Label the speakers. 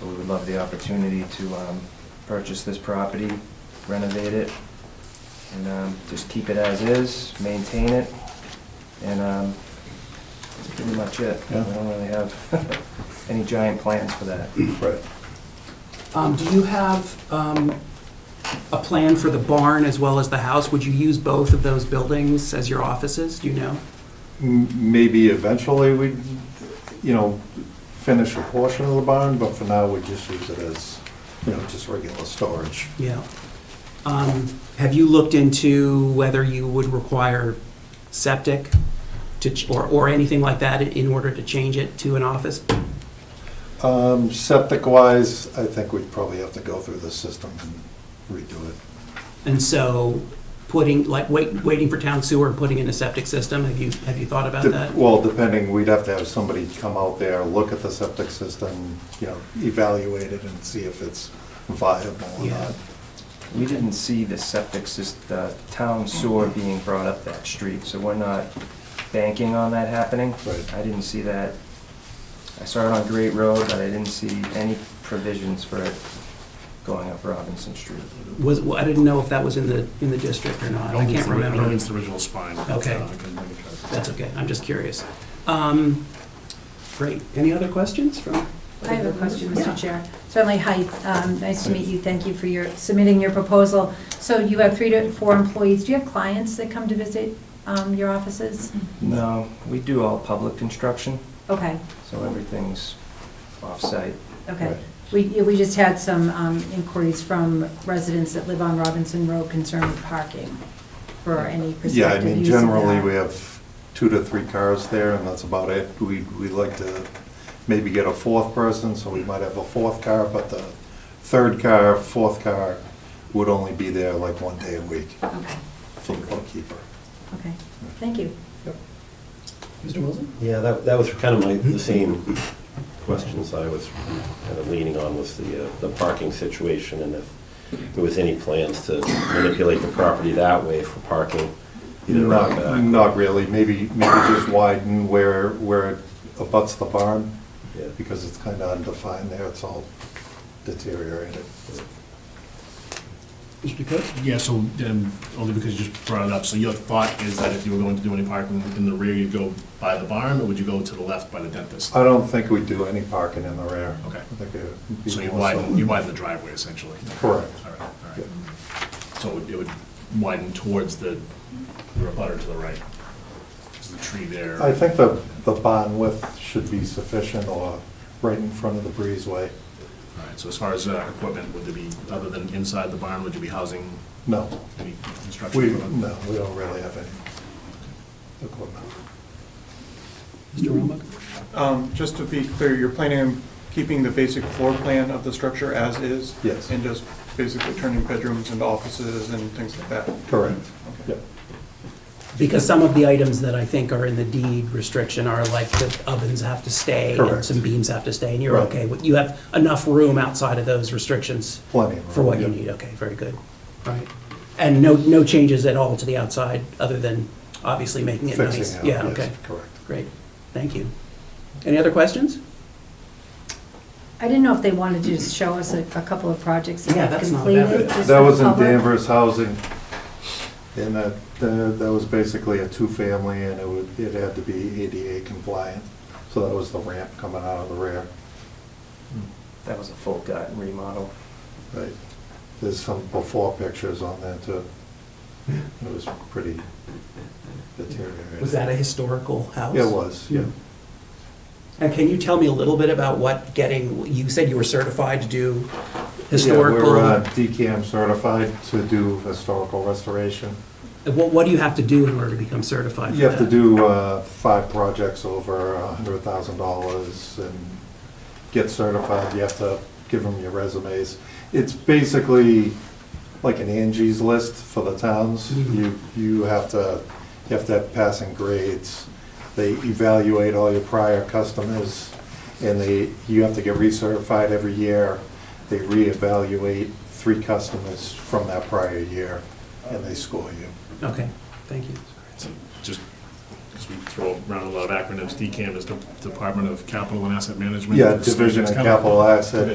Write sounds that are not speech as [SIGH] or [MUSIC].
Speaker 1: But we would love the opportunity to um, purchase this property, renovate it, and um, just keep it as is, maintain it, and um, that's pretty much it. We
Speaker 2: Yeah.
Speaker 1: don't really have [LAUGHS] any giant plans for that.
Speaker 2: Right.
Speaker 3: Um, do you have, um, a plan for the barn as well as the house? Would you use both of those buildings as your offices? Do you know?
Speaker 2: M- Maybe eventually we, you know, finish a portion of the barn, but for now, we just use it as, you know, just regular storage.
Speaker 3: Yeah. Um, have you looked into whether you would require septic to, ch- or, or anything like that in- in order to change it to an office?
Speaker 2: Um, Septic-wise, I think we'd probably have to go through the system and redo it.
Speaker 3: And so putting, like, wait, waiting for town sewer and putting in a septic system, have you, have you thought about
Speaker 2: Dep-
Speaker 3: Uh, that?
Speaker 2: Well, depending, we'd have to have somebody come out there, look at the septic system, you know, evaluate it and see if it's viable or
Speaker 3: Yeah.
Speaker 2: not.
Speaker 1: We didn't see the septic system, the town sewer being brought up that street, so we're not banking on that happening.
Speaker 2: Right.
Speaker 1: I didn't see that. I saw it on Great Road, but I didn't see any provisions for it going up Robinson Street.
Speaker 3: Was, well, I didn't know if that was in the, in the district or not. I
Speaker 4: Only
Speaker 3: can't
Speaker 4: the- only
Speaker 3: remember.
Speaker 4: the original spine.
Speaker 3: Okay.
Speaker 4: Uh, I couldn't think of it.
Speaker 3: That's okay, I'm just curious. Um, Great, any other questions from?
Speaker 5: I have a question,
Speaker 3: Yeah.
Speaker 5: Mr. Chair. Certainly, hi, um, nice to meet you, thank you for your, submitting your proposal. So you have three to four employees, do you have clients that come to visit um, your offices?
Speaker 3: Mm-hmm.
Speaker 1: No, we do all public construction,
Speaker 5: Okay,
Speaker 1: so everything's off-site.
Speaker 5: okay.
Speaker 2: Right.
Speaker 5: We, yeah, we just had some um, inquiries from residents that live on Robinson Road concerning parking for any prospective use
Speaker 2: Yeah, I mean, generally,
Speaker 5: of that.
Speaker 2: we have two to three cars there, and that's about it. We, we like to maybe get a fourth person, so we might have a fourth car, but the third car, fourth car would only be there like one day a week
Speaker 5: Okay,
Speaker 2: for the bookkeeper.
Speaker 5: okay, thank you.
Speaker 3: Mr. Wilson?
Speaker 6: Yeah, that, that was kind of my, the same questions I was kind of leaning on was the, uh, the parking situation and if there was any plans to manipulate the property that way for parking, either
Speaker 2: Not,
Speaker 6: out back.
Speaker 2: not really, maybe, maybe just widen where, where it abuts the barn,
Speaker 6: Yeah.
Speaker 2: because it's kind of undefined there, it's all deteriorated.
Speaker 3: Mr. Coates?
Speaker 4: Yeah, so, um, only because you just brought it up, so your thought is that if you were going to do any parking in the rear, you'd go by the barn, or would you go to the left by the dentist?
Speaker 2: I don't think we do any parking in the rear.
Speaker 4: Okay.
Speaker 2: I think it would be
Speaker 4: So you
Speaker 2: more
Speaker 4: widen, you widen the driveway essentially?
Speaker 2: Correct.
Speaker 4: All right, all
Speaker 2: Yeah.
Speaker 4: right. So it would- it would widen towards the, the butter to the right? There's the tree there.
Speaker 2: I think the, the bond width should be sufficient or right in front of the breezeway.
Speaker 4: All right, so as far as uh, equipment, would there be, other than inside the barn, would you be housing
Speaker 2: No,
Speaker 4: any construction?
Speaker 2: we,
Speaker 4: equipment?
Speaker 2: no, we don't really have any equipment.
Speaker 3: Mr. Roebuck?
Speaker 7: Um, Just to be clear, you're planning on keeping the basic floor plan of the structure as is?
Speaker 2: Yes.
Speaker 7: And just basically turning bedrooms into offices and things like that?
Speaker 2: Correct.
Speaker 7: Okay.
Speaker 2: Yep.
Speaker 3: Because some of the items that I think are in the deed restriction are like the ovens have to stay and
Speaker 2: Correct.
Speaker 3: some beams have to stay, and you're
Speaker 2: Right.
Speaker 3: okay with, you have enough room outside of those restrictions?
Speaker 2: Plenty of
Speaker 3: For what you
Speaker 2: room, yeah.
Speaker 3: need, okay, very good, all right. And no, no changes at all to the outside, other than obviously making it nice?
Speaker 2: Fixing it.
Speaker 3: Yeah,
Speaker 2: yes,
Speaker 3: okay,
Speaker 2: Correct.
Speaker 3: great, thank you. Any other questions?
Speaker 5: I didn't know if they wanted to just show us a a couple of projects
Speaker 3: Yeah,
Speaker 5: that they've
Speaker 3: that's not bad.
Speaker 5: completed. just
Speaker 2: That
Speaker 5: for the
Speaker 2: was in
Speaker 5: public.
Speaker 2: Danvers Housing, and that, that that was basically a two-family, and it would, it had to be ADA compliant. So that was the ramp coming out of the rear.
Speaker 1: That was a full gut remodel.
Speaker 2: Right. There's some before pictures on there too. It was pretty deteriorated.
Speaker 3: Was that a historical house?
Speaker 2: It was, yeah.
Speaker 3: And can you tell me a little bit about what getting, you said you were certified to do
Speaker 2: Yeah,
Speaker 3: historical?
Speaker 2: We're uh, DCAM certified to do historical restoration.
Speaker 3: What, what do you have to do in order to become certified for
Speaker 2: You have to
Speaker 3: that?
Speaker 2: do uh, five projects over a hundred thousand dollars and get certified. You have to give them your resumes. It's basically like an Angie's List for the towns.
Speaker 3: Mhm.
Speaker 2: You, you have to, you have to have passing grades. They evaluate all your prior customers and they, you have to get recertified every year. They reevaluate three customers from that prior year and they score you.
Speaker 3: Okay, thank you.
Speaker 4: So Just, because we throw around a lot of acronyms, DCAM is the Department of Capital and Asset Management.
Speaker 2: Yeah, Division of
Speaker 4: It's kind
Speaker 2: Capital Asset